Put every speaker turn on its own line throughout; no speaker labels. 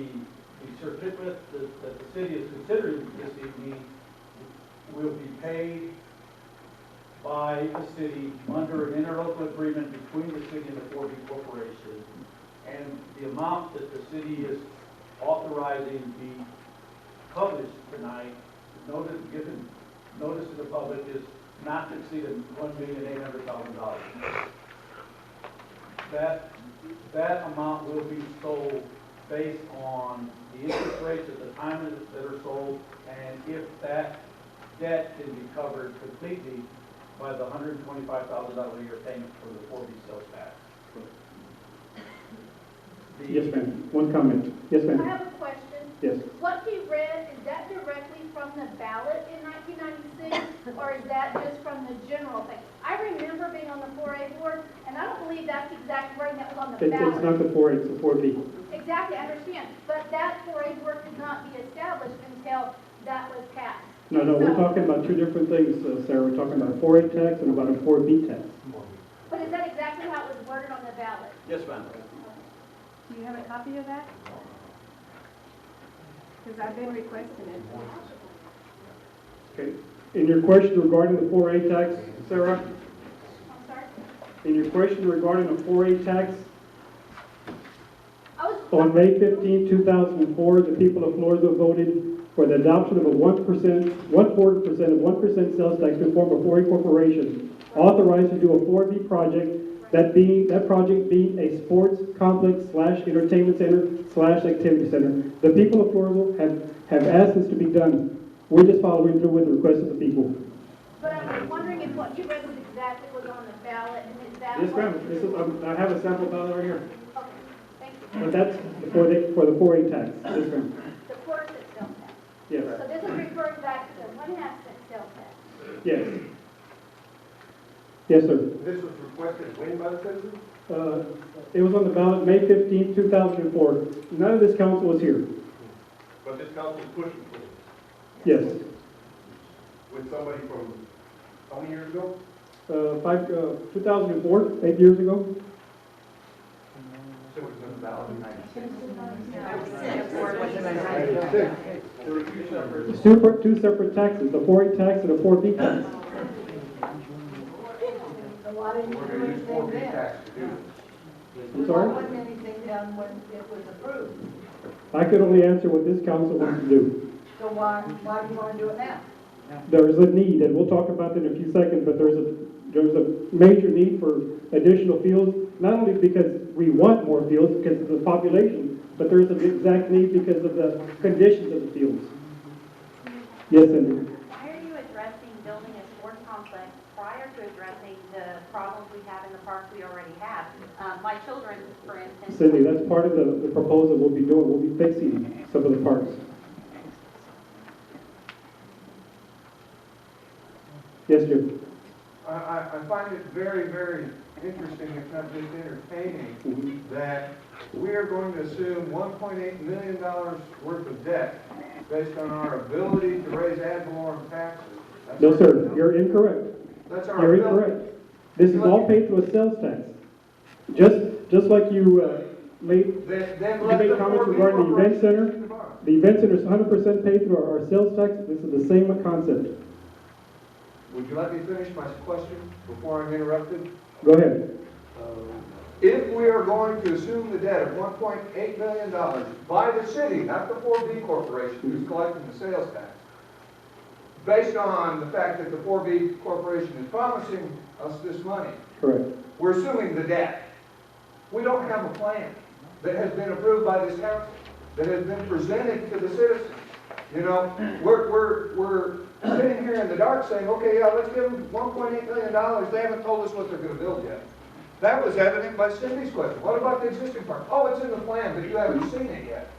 the the certificate that, that the city is considering this evening will be paid by the city under an interlocal agreement between the city and the 4B Corporation. And the amount that the city is authorizing be published tonight, notice, given, notice to the public is not to exceed one million eight hundred thousand dollars. That, that amount will be sold based on the interest rates at the time that- that are sold, and if that debt can be covered completely by the hundred and twenty-five thousand dollar a year payment for the four B sales tax. The-
Yes, ma'am. One comment. Yes,
I
ma'am.
have a question.
Yes.
What he read, is that directly from the ballot in 1996, or is that just from the general thing? I remember being on the 4A board, and I don't believe that's the exact wording that was on the
It- It's
ballot.
not the four, it's the four B.
Exactly, I understand, but that 4A board could not be established until that was passed.
No, no, we're
So-
talking about two different things, uh, Sarah. We're talking about a four A tax and about a four B tax.
But is that exactly how it was worded on the ballot?
Yes, ma'am.
Do you have a copy of that? Because I've been requesting it.
Okay. In your question regarding the four A tax, Sarah,
I'm sorry?
in your question regarding the four A tax,
I was.
on May 15, 2004, the people of Florida voted for the adoption of a 1%, one-fourth percent of 1% sales tax to form a 4A corporation authorized to do a 4B project, that being, that project being a sports complex slash entertainment center slash activity center. The people of Florida have, have asked this to be done. We're just following through with the request of the people.
But I was wondering if what you read was exactly what was on the ballot, and is that?
Yes,
what-
ma'am, this is, um, I have a sample ballot right here,
Okay, thank you.
but that's for the, for the 4A tax. Yes, ma'am.
The quarter cent sales tax.
Yes,
So this is referring back to the one half cent sales tax.
yes. Yes, sir.
This was requested when by the citizens?
Uh, It was on the ballot May 15, 2004. None of this council was here.
But this council is pushing for it
Yes.
with somebody from how many years ago?
Uh, Five, uh, 2004, eight years ago?
So it was on the ballot in ninety-six.
There were two separate
Super- Two separate taxes, the 4A tax and the 4B tax.
So why didn't
We're
you
gonna
do
use four
anything
B
then?
tax to do this.
I'm
Why
sorry?
wasn't anything done when it was approved?
I could only answer what this council wants to do.
So why, why do you wanna do it now?
There is a need, and we'll talk about that in a few seconds, but there's a, there's a major need for additional fields, not only because we want more fields because of the population, but there's an exact need because of the conditions of the fields. Yes, Cindy?
Why are you addressing building a sport complex prior to addressing the problems we have in the parks we already have? Um, My children, for instance.
Cindy, that's part of the, the proposal we'll be doing, we'll be fixing some of the parks. Yes, Jim?
I, I, I find it very, very interesting, if not just entertaining,
Mm-hmm.
that we are going to assume one point eight million dollars worth of debt based on our ability to raise ad valorem taxes. That's
No,
our-
sir, you're incorrect.
That's our.
You're
ability.
incorrect. This is all paid through a sales tax. Just, just like you, uh, made,
Then, then
You
let
made
the
comments
four B
regarding the event center?
corporations do the bond.
the event center is hundred percent paid through our, our sales tax, this is the same concept.
Would you let me finish my question before I'm interrupted? Uh,
Go ahead.
If we are going to assume the debt of one point eight million dollars by the city, not the four B corporation who's collecting the sales tax, based on the fact that the four B corporation is promising us this money,
Correct.
we're assuming the debt. We don't have a plan that has been approved by this council, that has been presented to the citizens. You know, we're, we're, we're sitting here in the dark saying, okay, yeah, let's give them one point eight million dollars, they haven't told us what they're gonna build yet. That was evident by Cindy's question, what about the existing park? Oh, it's in the plan, but you haven't seen it yet.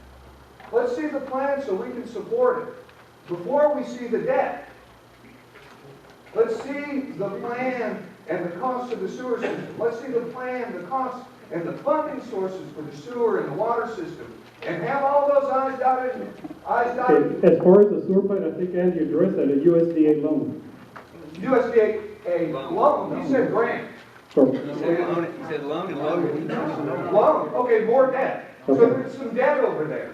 Let's see the plan so we can support it, before we see the debt. Let's see the plan and the cost of the sewer system. Let's see the plan, the cost, and the funding sources for the sewer and the water system. And have all those eyes dotted, eyes dotted.
Okay, as far as the sewer plant, I think Andy addressed that, a USDA loan.
USDA, a loan, he said grant,
So,
He said loan, he said loan and loan.
loan, okay, more debt. So there's some debt over there.